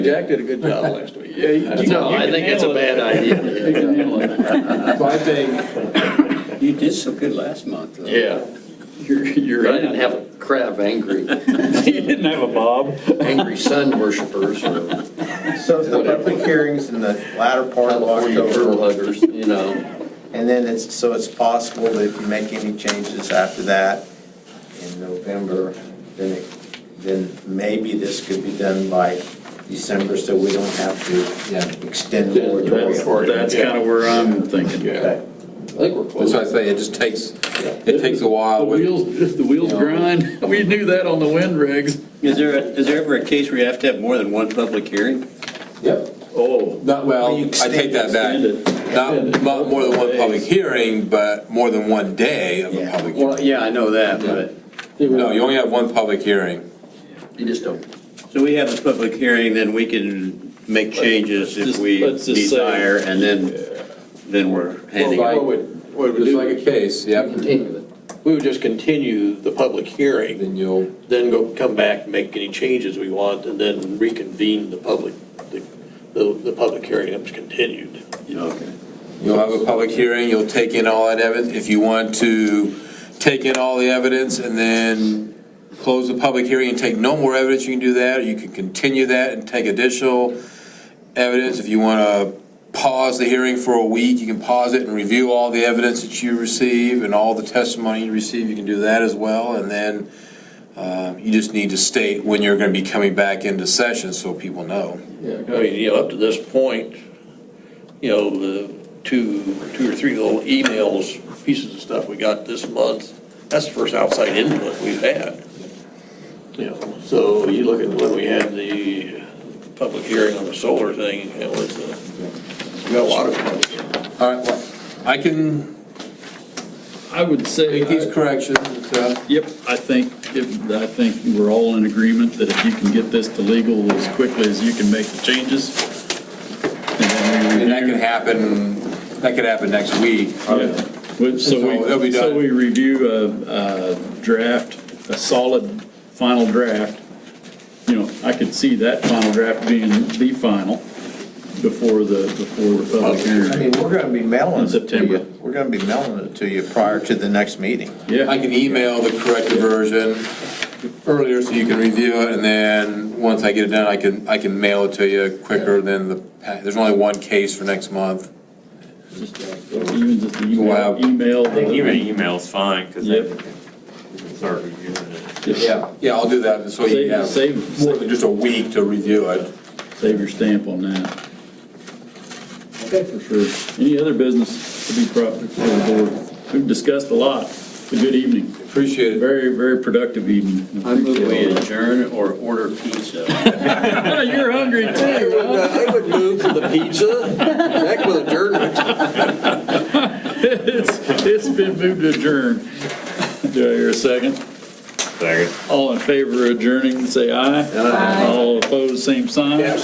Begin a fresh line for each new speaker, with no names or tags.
Jack did a good job last week. Yeah, you- you-
No,
you
I
can
think it's a
handle
bad
it. You
idea.
can handle it. So I think,
You did so good last month. though.
Yeah,
you're, you're.
but I didn't have a crowd of angry,
You didn't have a bob.
angry sun worshipers or
So the public hearings in the latter part of
California turtle
October,
huggers, you know.
and then it's, so it's possible that if you make any changes after that in November, then it, then maybe this could be done by December, so we don't have to extend the
That's-
moratorium.
That's kind of where I'm thinking.
Yeah.
I think we're
That's
close.
why I say it just takes, it takes a
The
Uh,
while. with-
wheels, the wheels grind. We knew that on the wind rigs.
Is there, a- is there ever a case where you have to have more than one public hearing?
Yep.
Oh,
Not, well, I take that back. Not, not more than one public hearing, but more than one day of a
Yeah.
public hearing.
yeah, I know that, but.
No, you only have one public hearing.
you just don't.
So we have a public hearing, then we can make changes if
just-
we
let's just say-
desire, and then, then we're handing it.
Like-
What
Just like a case, yep.
Continue it.
We would just continue the public hearing,
Then you'll,
then go, come back, make any changes we want, and then reconvene the public, the, the, the public hearing that was continued.
Okay.
you'll have a public hearing, you'll take in all that evidence. If you want to take in all the evidence and then close the public hearing and take no more evidence, you can do that. You can continue that and take additional evidence. If you want to pause the hearing for a week, you can pause it and review all the evidence that you receive and all the testimony you receive. You can do that as well. And then uh, you just need to state when you're going to be coming back into session so people know.
I mean, Oh, you know, up to this point, you know, the two, two or three little emails, pieces of stuff we got this month, that's the first outside input we've had. You know, so you look at when we had the public hearing on the solar thing, it was, uh, we got a lot of.
All right, well, I can
I would say, uh,
make these corrections uh, and stuff.
yep, I think, if- I think we're all in agreement that if you can get this to legal as quickly as you can make the changes, and then we
And that
review.
could happen, that could happen next week.
Yeah. We-
So
So
it'll be
we, so
done.
we review a, a draft, a solid final draft. You know, I could see that final draft being the final before the, before the public
I mean,
hearing.
we're gonna be
In
mailing it to
September.
you. We're gonna be mailing it to you prior to the next meeting.
I
Yeah,
can email the corrected version earlier so you can review it, and then, once I get it done, I can, I can mail it to you quicker than the, pa- there's only one case for next month.
uh, even just the
We'll have-
email, email. uh,
I think
the-
Even email's fine, because then
Yep.
you can start reviewing it.
Yeah. Yeah, I'll do that, so you
Save,
have
save,
more than just a week to review it.
Save your stamp on that. Okay. For sure. Any other business to be brought before the board? We've discussed a lot. It's a good evening.
Appreciate it.
Very, very productive evening.
I move we adjourn or order pizza.
You're hungry too.
I would move to the pizza, back with adjournment.
It's, it's been moved to adjourn. Do I hear a second?
Second.
All in favor of adjourning, say aye. Aye. All opposed, same sign.